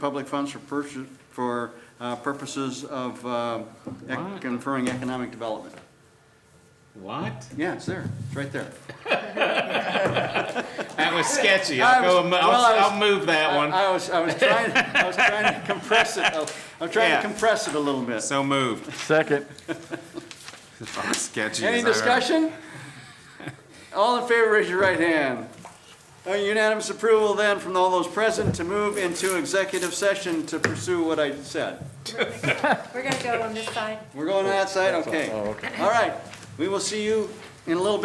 public funds for purchase, for uh, purposes of uh, ec- What? conferring economic development. What? Yeah, it's there, it's right there. That was sketchy. I I'll go, was- am- I'll, well, I was- I'll move that I- one. I was, I was trying, I was trying to compress it, a- I'm trying Yeah. to compress it a little bit. So moved. Second. About as sketchy Any as I ever- discussion? All in favor, raise your right hand. A Unanimous approval then from all those present to move into executive session to pursue what I said. We're gonna go on this side. Oh, We're going outside, okay. All right, we will see you in a little bit.